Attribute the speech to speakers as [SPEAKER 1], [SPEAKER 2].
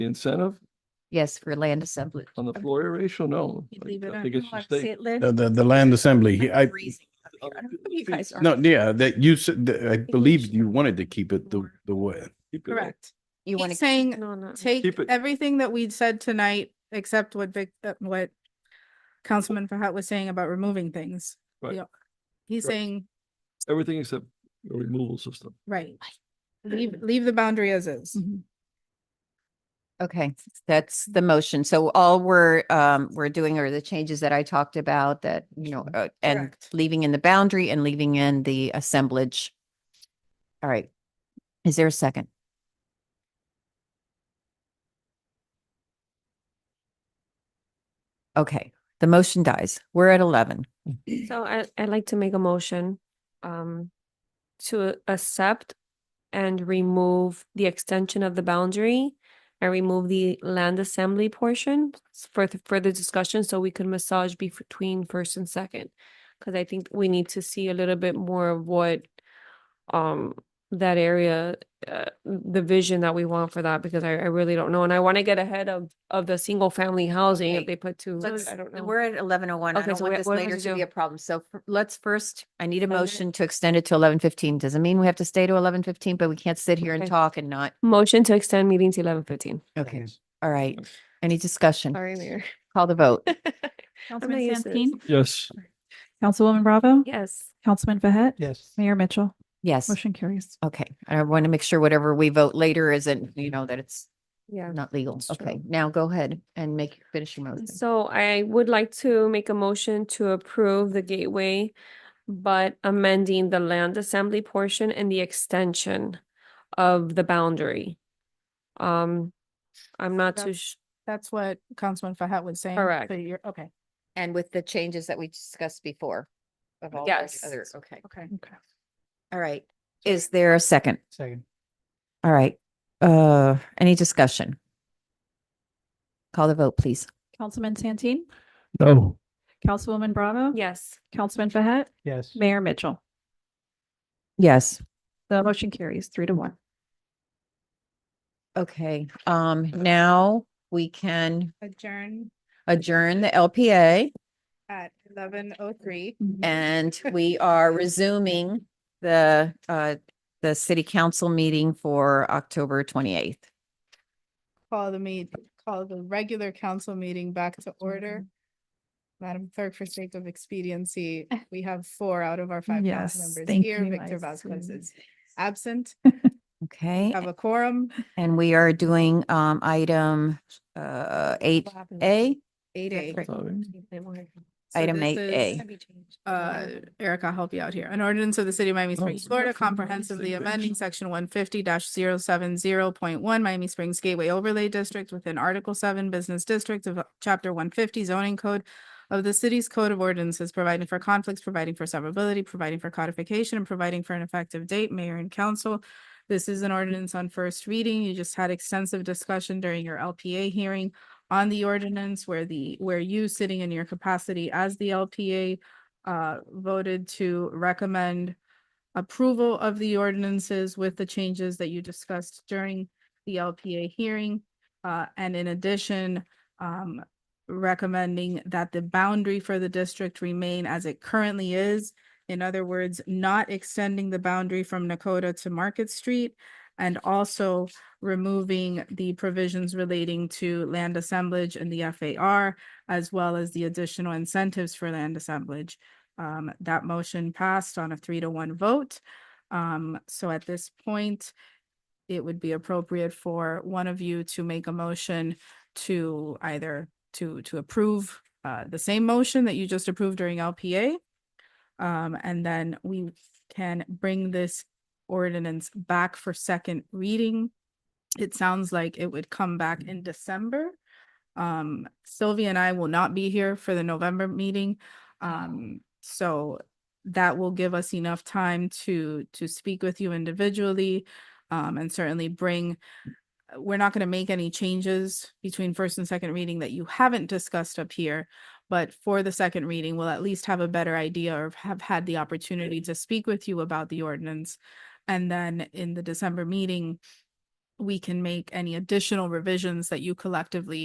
[SPEAKER 1] the incentive
[SPEAKER 2] Yes, for land assembly.
[SPEAKER 1] on the floor ratio? No.
[SPEAKER 3] You
[SPEAKER 1] Like,
[SPEAKER 3] leave it
[SPEAKER 1] I
[SPEAKER 3] on.
[SPEAKER 1] think it should
[SPEAKER 3] Oh, I
[SPEAKER 1] stay.
[SPEAKER 3] see it, Lynn.
[SPEAKER 4] The, the, the land assembly,
[SPEAKER 3] I'm
[SPEAKER 4] I,
[SPEAKER 3] freezing up here. I don't know if you
[SPEAKER 1] think-
[SPEAKER 3] guys are.
[SPEAKER 4] no, yeah, that you said, that I
[SPEAKER 3] we
[SPEAKER 4] believe
[SPEAKER 3] should
[SPEAKER 4] you wanted to keep it the,
[SPEAKER 3] more.
[SPEAKER 4] the way.
[SPEAKER 1] Keep it up.
[SPEAKER 3] Correct.
[SPEAKER 2] You want
[SPEAKER 5] He's
[SPEAKER 2] to,
[SPEAKER 5] saying,
[SPEAKER 3] No, no.
[SPEAKER 5] take
[SPEAKER 1] Keep it-
[SPEAKER 5] everything that we'd said tonight, except what Vic, uh, what Councilman Fahad was saying about removing things.
[SPEAKER 1] Right.
[SPEAKER 5] Yeah. He's
[SPEAKER 1] Right.
[SPEAKER 5] saying,
[SPEAKER 1] Everything except the removal system.
[SPEAKER 5] right, leave, leave the boundary as is.
[SPEAKER 2] okay, that's the motion. So all we're, um, we're doing are the changes that I talked about that, you
[SPEAKER 1] Mm-hmm.
[SPEAKER 2] know, uh, and
[SPEAKER 5] Correct.
[SPEAKER 2] leaving in the boundary and leaving in the assemblage. All right. Is there a second? Okay, the motion dies. We're at eleven.
[SPEAKER 3] So I, I'd like to make a motion, um, to accept and remove the extension of the boundary and remove the land assembly portion for th- further discussion, so we can massage bef- between first and second. Cause I think we need to see a little bit more of what, um, that area, uh, the vision that we want for that, because I, I really don't know. And I want to get ahead of, of the single family housing if
[SPEAKER 2] Okay.
[SPEAKER 3] they put two, I don't know.
[SPEAKER 2] We're at eleven oh one. I
[SPEAKER 3] Okay,
[SPEAKER 2] don't
[SPEAKER 3] so
[SPEAKER 2] want
[SPEAKER 3] what-
[SPEAKER 2] this
[SPEAKER 3] what do we
[SPEAKER 2] later
[SPEAKER 3] have to
[SPEAKER 2] to be
[SPEAKER 3] do?
[SPEAKER 2] a problem. So f- let's first, I need a
[SPEAKER 3] Extend it?
[SPEAKER 2] motion to extend it to eleven fifteen. Doesn't mean we have to stay to eleven fifteen, but we can't sit here and
[SPEAKER 3] Okay.
[SPEAKER 2] talk and not.
[SPEAKER 3] Motion to extend meeting to eleven fifteen.
[SPEAKER 2] Okay, all right. Any discussion?
[SPEAKER 3] Sorry, Mayor.
[SPEAKER 2] Call the vote.
[SPEAKER 3] Councilman not used to this. Santeen?
[SPEAKER 1] Yes.
[SPEAKER 6] Councilwoman Bravo?
[SPEAKER 3] Yes.
[SPEAKER 6] Councilman Behet?
[SPEAKER 7] Yes.
[SPEAKER 6] Mayor Mitchell?
[SPEAKER 2] Yes,
[SPEAKER 6] Motion carries.
[SPEAKER 2] okay. I want to make sure whatever we vote later isn't, you know, that it's
[SPEAKER 3] Yeah.
[SPEAKER 2] not legal.
[SPEAKER 3] It's true.
[SPEAKER 2] Okay, now go ahead and make, finish your motion.
[SPEAKER 3] So I would like to make a motion to approve the gateway, but amending the land assembly portion and the extension of the boundary. Um, I'm not too,
[SPEAKER 5] That's-
[SPEAKER 3] sh-
[SPEAKER 5] That's what Councilman Fahad was saying.
[SPEAKER 3] Correct.
[SPEAKER 5] So you're, okay,
[SPEAKER 2] And with the changes that we discussed before. of all the
[SPEAKER 3] Yes.
[SPEAKER 2] other- Okay,
[SPEAKER 5] okay.
[SPEAKER 6] Okay.
[SPEAKER 2] all right. Is there a second?
[SPEAKER 7] Second.
[SPEAKER 2] All right, uh, any discussion? Call the vote, please.
[SPEAKER 6] Councilman Santeen?
[SPEAKER 1] No.
[SPEAKER 6] Councilwoman Bravo?
[SPEAKER 3] yes.
[SPEAKER 6] Councilman Behet?
[SPEAKER 7] Yes.
[SPEAKER 6] Mayor Mitchell?
[SPEAKER 2] Yes.
[SPEAKER 6] The motion carries three to one.
[SPEAKER 2] Okay, um, now we can
[SPEAKER 5] Adjourn
[SPEAKER 2] adjourn the LPA
[SPEAKER 5] at eleven oh three.
[SPEAKER 2] and we are resuming the, uh, the city council meeting for October twenty-eighth.
[SPEAKER 5] Call the meet, call the regular council meeting back to order. Madam Clerk, for sake of expediency, we have four out of our five council
[SPEAKER 6] Yes,
[SPEAKER 5] members
[SPEAKER 6] thank
[SPEAKER 5] here.
[SPEAKER 6] you.
[SPEAKER 5] Victor
[SPEAKER 6] I
[SPEAKER 5] Vasquez
[SPEAKER 6] see.
[SPEAKER 5] is absent.
[SPEAKER 2] Okay,
[SPEAKER 5] Have a quorum.
[SPEAKER 2] and we are doing, um, item, uh, eight A.
[SPEAKER 5] Eight A. So
[SPEAKER 2] Item
[SPEAKER 5] this
[SPEAKER 2] eight A.
[SPEAKER 5] is, Uh, Eric, I'll help you out here. An ordinance of the city of Miami Springs,
[SPEAKER 1] Oh.
[SPEAKER 5] Florida, comprehensively amending section one fifty 70one Miami Springs Gateway Overlay District within Article seven Business District of Chapter one fifty zoning code of the city's code of ordinances, providing for conflicts, providing for severability, providing for codification, and providing for an effective date, mayor and council. This is an ordinance on first reading. You just had extensive discussion during your LPA hearing on the ordinance where the, where you sitting in your capacity as the LPA uh, voted to recommend approval of the ordinances with the changes that you discussed during the LPA hearing. Uh, and in addition, um, recommending that the boundary for the district remain as it currently is. In other words, not extending the boundary from Nakota to Market Street and also removing the provisions relating to land assemblage and the FAR, as well as the additional incentives for land assemblage. Um, that motion passed on a three to one vote. Um, so at this point, it would be appropriate for one of you to make a motion to either to, to approve uh, the same motion that you just approved during LPA. Um, and then we can bring this ordinance back for second reading it sounds like it would come back in December. Um, Sylvia and I will not be here for the November meeting. Um, so that will give us enough time to, to speak with you individually. Um, and certainly bring, uh, we're not gonna make any changes between first and second reading that you haven't discussed up here. But for the second reading, we'll at least have a better idea or have had the opportunity to speak with you about the ordinance. And then in the December meeting, we can make any additional revisions that you collectively